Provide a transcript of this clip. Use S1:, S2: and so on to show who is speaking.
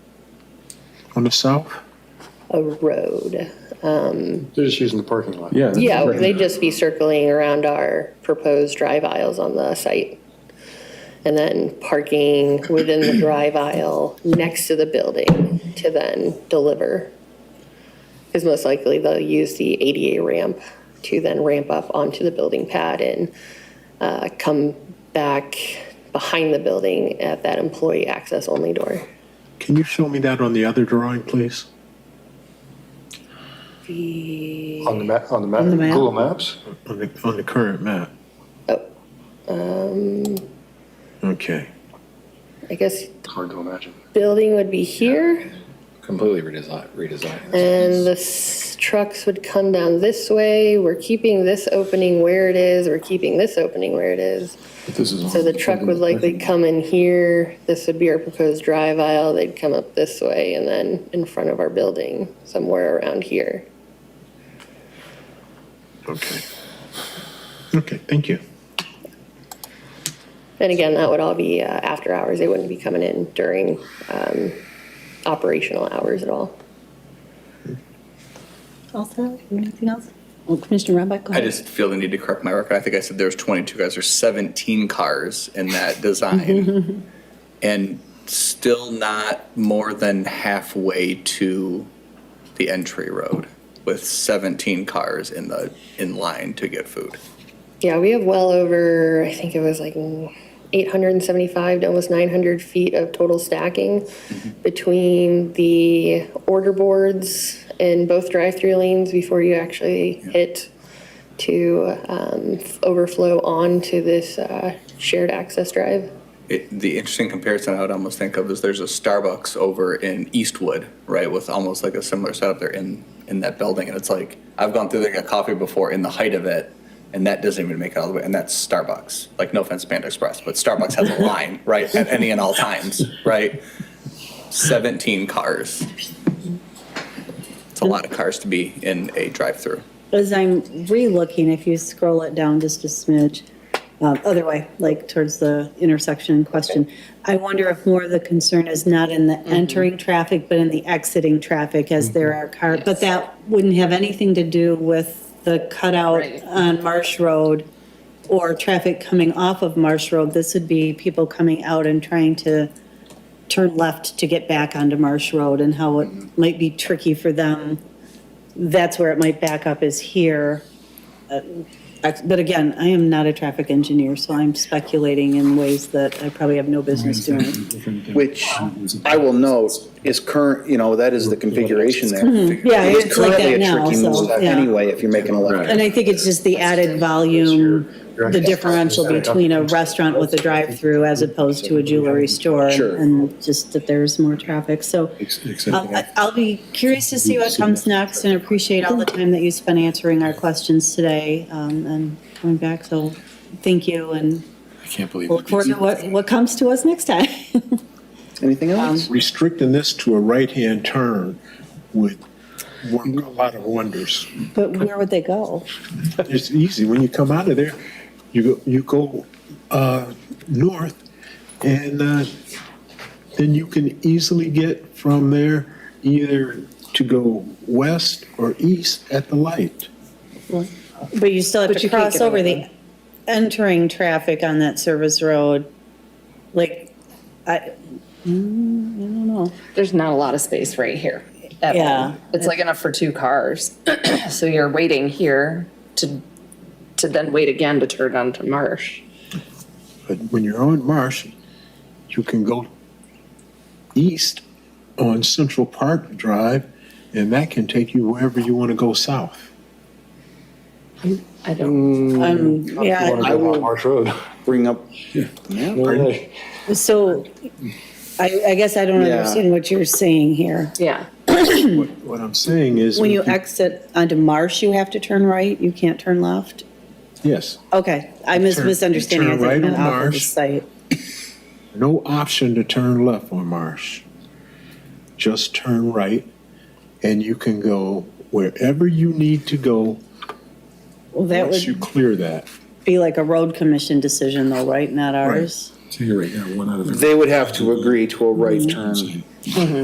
S1: on the south?
S2: a road.
S3: They're just using the parking lot.
S1: Yeah. that's
S2: Yeah,
S1: correct.
S2: they'd just be circling around our proposed drive aisles on the site. And then parking within the drive aisle next to the building to then deliver. Because most likely they'll use the ADA ramp to then ramp up onto the building pad and uh, come back behind the building at that employee access only door.
S1: Can you show me that on the other drawing, please?
S3: On the map, on the map,
S4: the map.
S3: Google Maps?
S1: On the, on the current map?
S2: Oh,
S1: Okay.
S2: I guess
S3: It's hard to imagine.
S2: building would be here.
S5: completely redesign, redesign.
S2: And the s- trucks would come down this way. We're keeping this opening where it is. We're keeping this opening where it is. So the truck would likely come in here. This would be our proposed drive aisle. They'd come up this way and then in front of our building, somewhere around here.
S1: Okay. Okay, thank you.
S2: And again, that would all be uh, after hours. They wouldn't be coming in during um, operational hours at all.
S4: Also, anything else? Well, Commissioner Ramback, go
S6: I
S4: ahead.
S6: just feel the need to correct my record. I think I said there was 22 guys. There's 17 cars in that design. And still not more than halfway to the entry road with 17 cars in the, in line to get food.
S2: Yeah, we have well over, I think it was like 875 to almost 900 feet of total stacking between the order boards in both drive-through lanes before you actually hit to um, f- overflow onto this uh, shared access drive.
S6: It, the interesting comparison I would almost think of is there's a Starbucks over in Eastwood, right, with almost like a similar setup there in in that building, and it's like I've gone through there and got coffee before in the height of it, and that doesn't even make it all the way, and that's Starbucks. Like no offense, Panda Express, but Starbucks has a line, right, at any and all times, right? Seventeen cars. It's a lot of cars to be in a drive-through.
S4: As I'm re-looking, if you scroll it down just a smidge, um, other way, like towards the intersection in question, I wonder if more of the concern is not in the entering traffic, but in the exiting traffic as there are cars. But that wouldn't have anything to do with the cutout
S7: Right.
S4: on Marsh Road or traffic coming off of Marsh Road. This would be people coming out and trying to turn left to get back onto Marsh Road and how it might be tricky for them that's where it might back up is here. Uh, But again, I am not a traffic engineer, so I'm speculating in ways that I probably have no business doing.
S8: Which I will note is current, you know, that is the configuration there.
S4: Mm-hmm. Yeah, it's like
S8: Currently
S4: that
S8: a
S4: now,
S8: tricky move
S4: so, yeah.
S8: Anyway, if you're making a left.
S4: And I think it's just the added volume, the differential between a restaurant with a drive-through as opposed to a jewelry store.
S8: Sure.
S4: And just that there's more traffic, so um, I- I'll be curious to see what comes next and appreciate all the time that you spent answering our questions today um, and coming back, so thank you and
S5: I can't believe
S4: We'll look forward to what, what comes to us next time.
S8: Anything else?
S4: Um,
S1: Restricting this to a right-hand turn would work a lot of wonders.
S4: But where would they go?
S1: It's easy, when you come out of there, you go, you go, uh, north, and, uh, then you can easily get from there either to go west or east at the light.
S4: But you still have to
S7: you can't
S4: cross
S7: get
S4: over the entering traffic on that service road. Like, I, mm, I don't know.
S7: There's not a lot of space right here. at all.
S4: Yeah.
S7: It's like enough for two cars. So you're waiting here to, to then wait again to turn onto Marsh.
S1: But when you're on Marsh, you can go east on Central Park Drive, and that can take you wherever you want to go south.
S7: I don't,
S4: Um,
S3: You wanna
S4: yeah,
S3: go down Marsh Road.
S8: Bring up,
S4: so I, I guess I don't
S8: Yeah.
S4: understand what you're saying here.
S7: yeah.
S1: What I'm saying is.
S4: When you exit onto Marsh, you have to turn right? You can't turn left?
S1: Yes,
S4: Okay, I mis-
S1: Turn-
S4: misunderstanding. I
S1: turn
S4: think
S1: right
S4: it meant
S1: on
S4: off of the
S1: Marsh.
S4: site.
S1: no option to turn left on Marsh. Just turn right, and you can go wherever you need to go
S4: Well, that
S1: once you
S4: would
S1: clear that.
S4: be like a road commission decision though, right? Not ours? Mm-hmm.
S8: they would have to agree to a right turn.